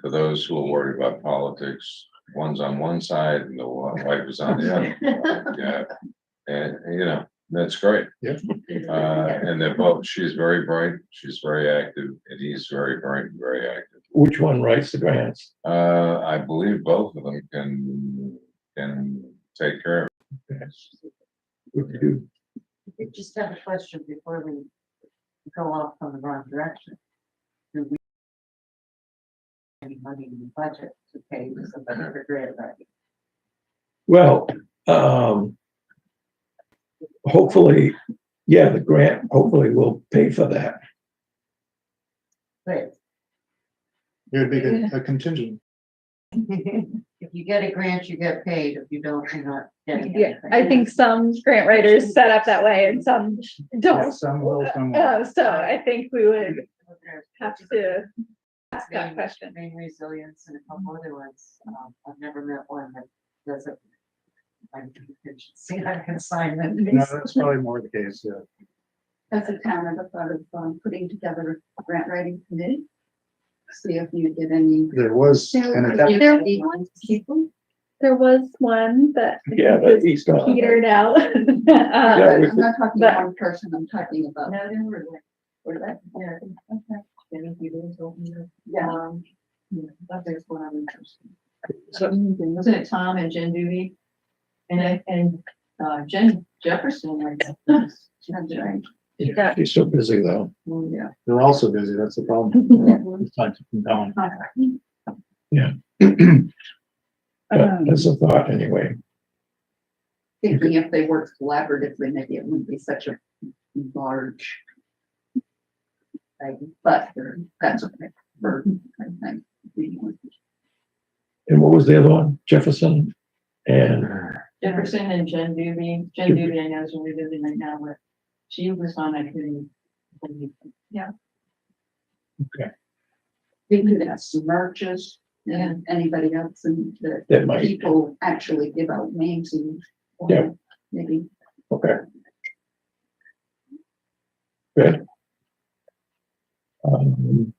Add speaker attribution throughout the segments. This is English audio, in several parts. Speaker 1: for those who are worried about politics, one's on one side and the wa- wife is on the other. Yeah, and, you know, that's great.
Speaker 2: Yeah.
Speaker 1: Uh, and they're both, she's very bright, she's very active, and he's very bright, and very active.
Speaker 2: Which one writes the grants?
Speaker 1: Uh, I believe both of them can, can take care of. it.
Speaker 2: What do you do?
Speaker 3: I just have a question before we go off on the wrong direction. Do we any money in the budget to pay somebody for grant writing?
Speaker 2: Well, um. Hopefully, yeah, the grant hopefully will pay for that.
Speaker 3: But
Speaker 4: It would make it a contingent.
Speaker 3: if you get a grant, you get paid. If you don't, you're not getting
Speaker 5: Yeah,
Speaker 3: anything.
Speaker 5: I think some grant writers set up that way and some
Speaker 6: Oh.
Speaker 5: don't.
Speaker 4: Some will, some won't.
Speaker 5: Uh, so I think we would have to ask that question.
Speaker 3: Main resilience and a couple other ones. Um, I've never met one that doesn't. I'm contingency on assignment.
Speaker 4: No, that's probably more the case, yeah.
Speaker 7: As a town, I thought of um, putting together a grant writing committee. See if you did any.
Speaker 4: There was an attempt,
Speaker 5: There
Speaker 7: Any
Speaker 5: was-
Speaker 7: People.
Speaker 5: there was one that
Speaker 2: Yeah, but he's not.
Speaker 5: petered out.
Speaker 2: Yeah,
Speaker 5: Um,
Speaker 2: we
Speaker 7: I'm not talking
Speaker 5: but-
Speaker 7: one person, I'm talking about.
Speaker 3: No, there were like,
Speaker 7: Or that,
Speaker 3: yeah,
Speaker 7: okay.
Speaker 3: many people told me that.
Speaker 7: Yeah,
Speaker 3: Um,
Speaker 7: that is what I'm interested. in.
Speaker 8: So wasn't it Tom and Jen Duty? And I, and uh, Jen Jefferson, I guess.
Speaker 7: That's right.
Speaker 2: Yeah, He's so busy though.
Speaker 7: Yeah.
Speaker 4: they're also busy, that's the problem. It's time to come down.
Speaker 2: But uh, that's a thought anyway.
Speaker 7: Thinking if they worked collaboratively, maybe it wouldn't be such a large. thing, but that's okay. burden, I think. We want to
Speaker 2: And what was the other one? Jefferson and
Speaker 8: Jefferson and Jen Duty, Jen Duty, I know is really busy right now, but she was on that committee.
Speaker 7: We could have some merges
Speaker 8: Yeah.
Speaker 7: and anybody else and the
Speaker 2: that might,
Speaker 7: people actually give out names and. or
Speaker 2: Yeah.
Speaker 7: Maybe
Speaker 2: okay. Good. Um,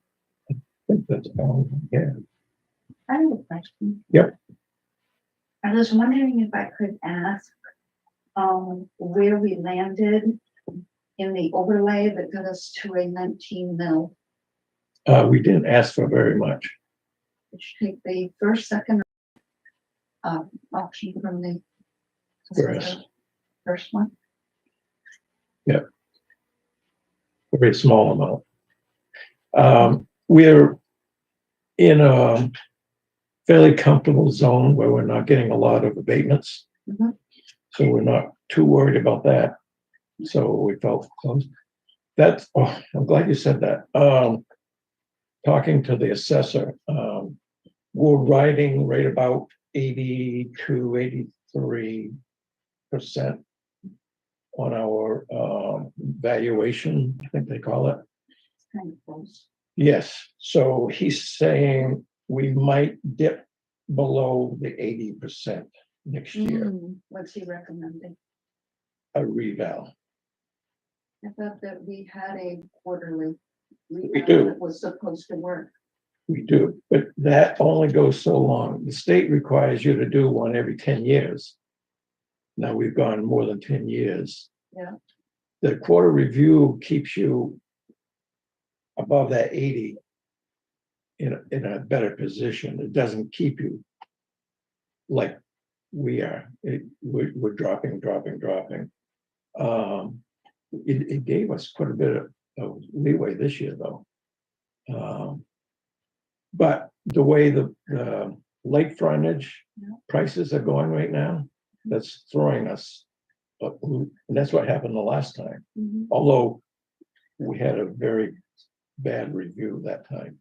Speaker 2: I think that's all, yeah.
Speaker 6: I have a question.
Speaker 2: Yep.
Speaker 6: I was wondering if I could ask, um, where we landed in the overlay that got us to a nineteen mil.
Speaker 2: Uh, we didn't ask for very much.
Speaker 6: Which take the first, second, uh, option from the.
Speaker 2: Yes.
Speaker 6: First one,
Speaker 2: very small amount. Um, we're in a fairly comfortable zone where we're not getting a lot of abatements.
Speaker 6: Mhm.
Speaker 2: So we're not too worried about that. So we felt close. That's, oh, I'm glad you said that. Um, talking to the assessor, um, we're riding right about 82, 83 percent on our um, valuation, I think they call it.
Speaker 6: it's kind of close.
Speaker 2: Yes, so he's saying we might dip below the eighty percent next year,
Speaker 6: Hmm, What's he recommending?
Speaker 2: a revale.
Speaker 6: I thought that we had a quarterly.
Speaker 2: We do.
Speaker 6: That was supposed to work.
Speaker 2: We do, but that only goes so long. The state requires you to do one every ten years. Now we've gone more than ten years.
Speaker 6: Yeah.
Speaker 2: The quarter review keeps you above that eighty in, a- in a better position. It doesn't keep you like we are. It, we're, we're dropping, dropping, dropping. Um, it, it gave us quite a bit of- of leeway this year, though. Um, but the way the, the lake frontage prices are going right now, that's throwing us. a loop. And that's what happened the last time,
Speaker 6: Mhm.
Speaker 2: although we had a very bad review that time.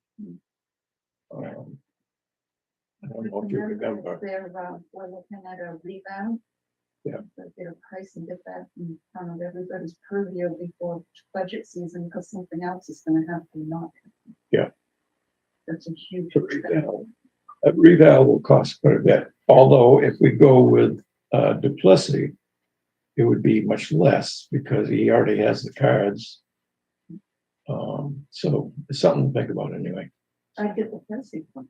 Speaker 2: Um, I don't know if you remember.
Speaker 6: They're, uh, we're looking at a rebound.
Speaker 2: Yeah.
Speaker 6: But their price and get that in front of everybody's purview before budget season, because something else is gonna have to not.
Speaker 2: Yeah.
Speaker 6: That's a huge.
Speaker 2: to reval. A reval will cost quite a bit, although if we go with uh Duplessis, it would be much less because he already has the cards. Um, so it's something to think about anyway.
Speaker 6: I get the pricing from.